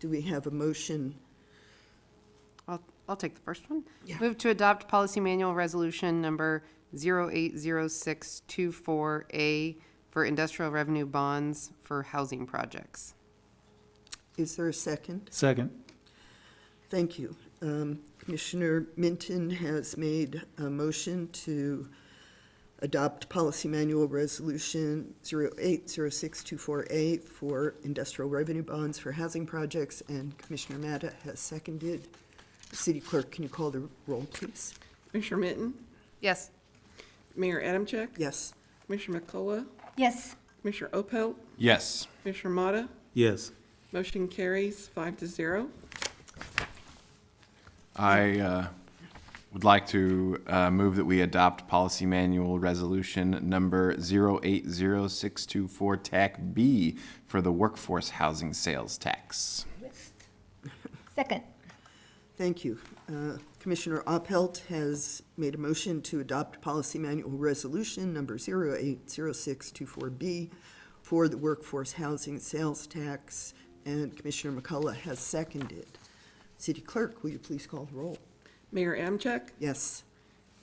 Do we have a motion? I'll, I'll take the first one. Yeah. Move to adopt policy manual resolution number 080624A for industrial revenue bonds for housing projects. Is there a second? Second. Thank you. Um, Commissioner Minton has made a motion to adopt Policy Manual Resolution 080624A for industrial revenue bonds for housing projects, and Commissioner Matta has seconded. City Clerk, can you call the roll, please? Commissioner Minton, Yes. Mayor Adamchek, Yes. Commissioner McCullough, Yes. Commissioner Opelt, Yes. Commissioner Motta. Yes. Motion carries five to zero. I uh, would like to uh, move that we adopt policy manual resolution number 080624 TAC B for the workforce housing sales tax. Second. Thank you. Uh, Commissioner Opelt has made a motion to adopt Policy Manual Resolution Number 080624B for the workforce housing sales tax, and Commissioner McCullough has seconded. City Clerk, will you please call the roll? Mayor Adamchek, Yes.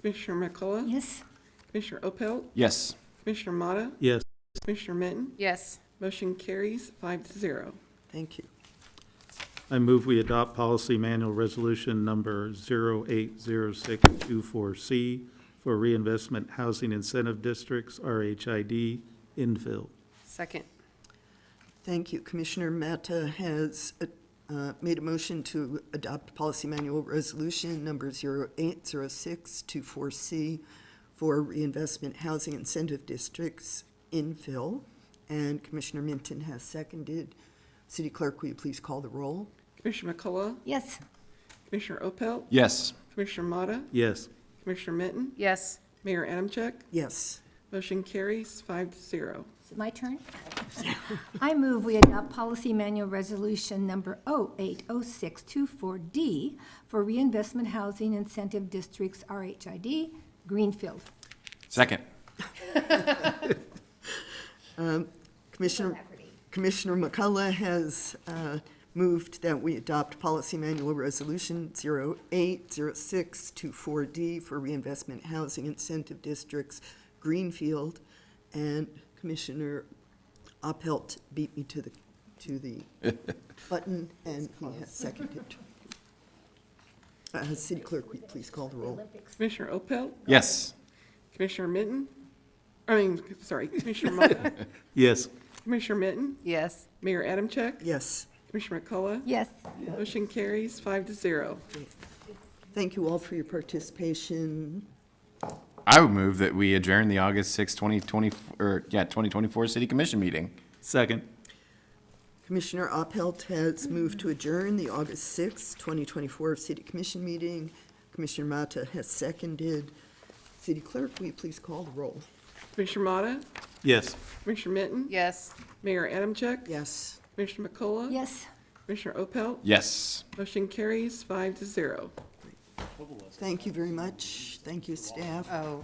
Commissioner McCullough, Yes. Commissioner Opelt, Yes. Commissioner Motta, Yes. Commissioner Minton, Yes. motion carries five to zero. Thank you. I move we adopt policy manual resolution number 080624C for reinvestment housing incentive districts, RHID, infill. Second. Thank you. Commissioner Mata has uh, made a motion to adopt Policy Manual Resolution Number 080624C for reinvestment housing incentive districts infill, and Commissioner Minton has seconded. City Clerk, will you please call the roll? Commissioner McCullough, Yes. Commissioner Opelt, Yes. Commissioner Motta, Yes. Commissioner Minton, Yes. Mayor Adamchek, Yes. motion carries five to zero. Is it my turn? I move we adopt policy manual resolution number 080624D for reinvestment housing incentive districts, RHID, Greenfield. Second. Commissioner, Commissioner McCullough has uh, moved that we adopt Policy Manual Resolution 080624D for reinvestment housing incentive districts, Greenfield, and Commissioner Opelt beat me to the, to the button, and he has seconded. Uh, City Clerk, will you please call the roll? Commissioner Opelt, Yes. Commissioner Minton, I mean, sorry, Commissioner Motta, Yes. Commissioner Minton, Yes. Mayor Adamchek, Yes. Commissioner McCullough, Yes. Motion carries five to zero. Thank you all for your participation. I would move that we adjourn the August 6, 2020, or, yeah, 2024 City Commission meeting. Second. Commissioner Opelt has moved to adjourn the August sixth, 2024 City Commission meeting. Commissioner Mata has seconded. City Clerk, will you please call the roll? Commissioner Motta, Yes. Commissioner Minton? Yes. Mayor Adamchek? Yes. Commissioner McCullough? Yes. Commissioner Opelt? Yes. Motion carries five to zero. Thank you very much. Thank you, staff. Oh.